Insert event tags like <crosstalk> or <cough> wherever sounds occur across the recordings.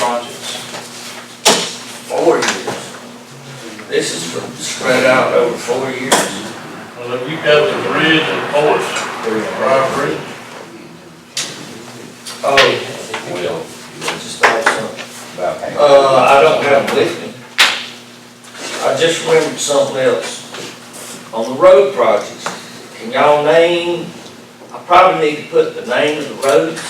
projects. Four years. This is for- spread out over four years. Well, if you got the bridge and porch, Briar Bridge, Oh, well, just start something. Uh, I don't have it with me. I just remembered something else. On the road projects, can y'all name, I probably need to put the name of the roads.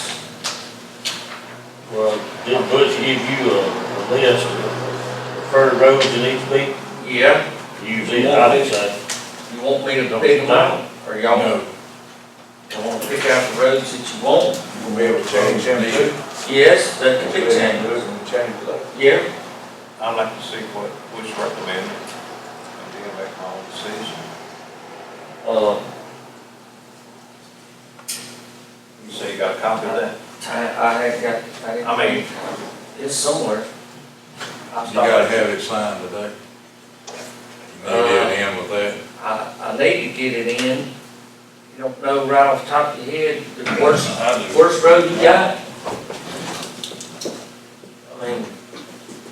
well, did Butch give you a a list of preferred roads in each week? Yeah. Usually, I'd say. You want me to pick them out, or y'all No. want to pick out the roads that you want? We'll be able to change them too. Yes, that could be Change changed. those and change those. Yeah, I'd like to see what was recommended, and then make my own decision. uh, You say you got a copy of that? I, I had got, I didn't. I mean- It's somewhere. You gotta have it signed today. You may get in with that. I, I need to get it in. You don't know right off the top of your head the worst, I do. worst road you got? I mean,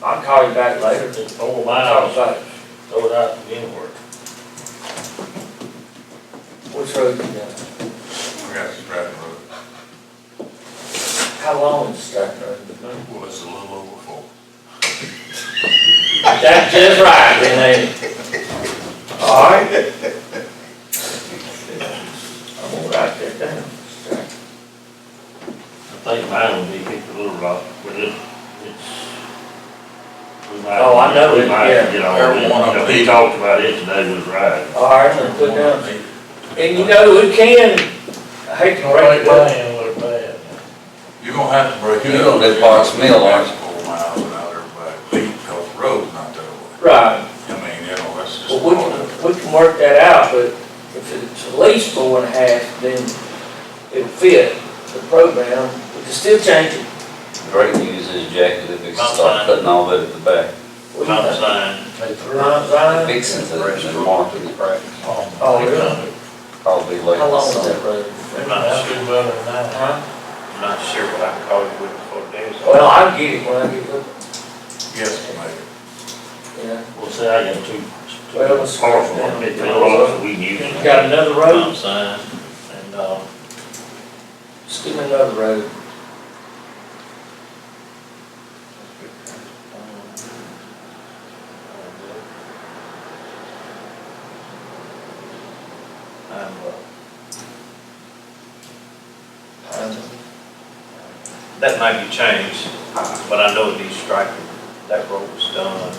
I'll call you back later. It's four Talk miles, about it. throw it out to anywhere. Which road you got? I got Stratton Road. How long is that road? Well, it's a little over four. That's just right, then. All right. I'm gonna write that down. I think mine would be hit the little rock, but it, it's. we might- Oh, I know it, We might yeah. get all Every this. one of You know, them. He talked about it today was right. All right, I'm gonna put down. And you know, we can, I hate to break it down. what bad. You're gonna have to break it You up. know that Bob's Mill, aren't you? Four miles without everybody beat, because the road's not that way. Right, I mean, you know, that's just. well, we can, we can work that out, but if it's at least four and a half, then it'll fit the program. We can still change it. Great news is, Jack, that they start putting all that at the back, What do you Mountain think? sign. Ron, Ryan? fixing it and marking it, Oh, really? probably later. How long is summer. that road? I'm not sure, Huh? I'm not sure what I can call you with before the day is over. Well, I'll get it when I get it, Yes, mate. yeah. Well, see, I got two, Well, it's- two powerful ones, it's a lot we can use. You got another road? Mountain sign, and, uh, Just give me another road. I'm, uh, That might be changed, but I know it needs striking. That road was done.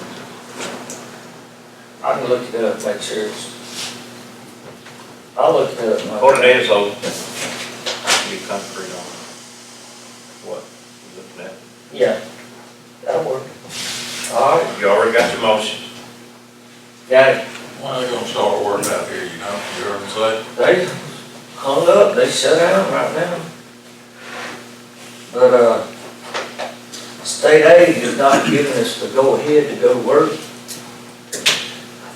I can look it up, make sure it's. I'll look it up. Mike. Before the day is over, I can be concrete on what you're looking at. Yeah, that'll work. All right, You already got your motion. got it. Why they gonna start working out here, you know, you heard them say? They hung up, they shut down right now. But, uh, state aid is not giving us the go-ahead to go to work. I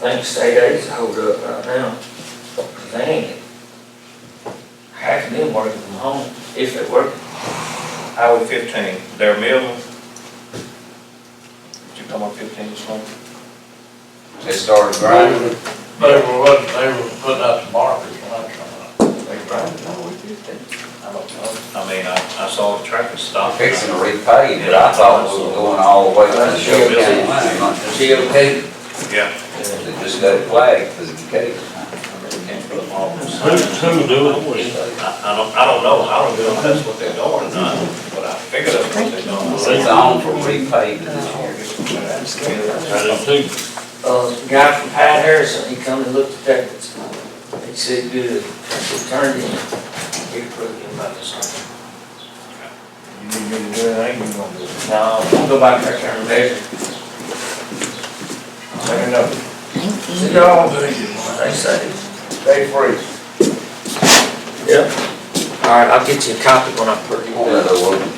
think state aid's hold up right now. They ain't half of them working from home, if they work. Highway fifteen, Darryl Miller. Did you come on fifteen this morning? They started grinding, they were, what- they were putting out the markers when I come up. I don't know. I mean, I, I saw the traffic stop. fixing to repave, but I thought we were going all the way to the Show County line, not just. GOP. Yeah. They just got it flagged for the case. Can't put them all on the Who, side. who do it? I, I don't, I don't know. I don't know if that's what they're doing or not, but I figured that's what they're doing. It's on for repaving this I year. didn't think. Uh, the guy from Pat Harrison, he come and looked at that, he said, good, he turned in, he approved him by the sign. You need me to do anything, you gonna do it. No, we'll go back there and measure. Let me know. See y'all, Thank you, Mike. they say, stay free. Yep. All right, I'll get you a copy when I put it One on. of those open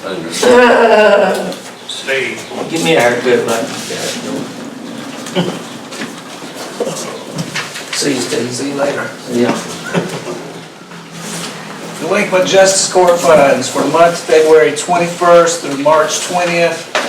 fingers. Steve. Give me a haircut, man. See you, Steve, <laughs> see you later. Yeah. Delinquent Justice Court funds for the month of February 21st through March 20th,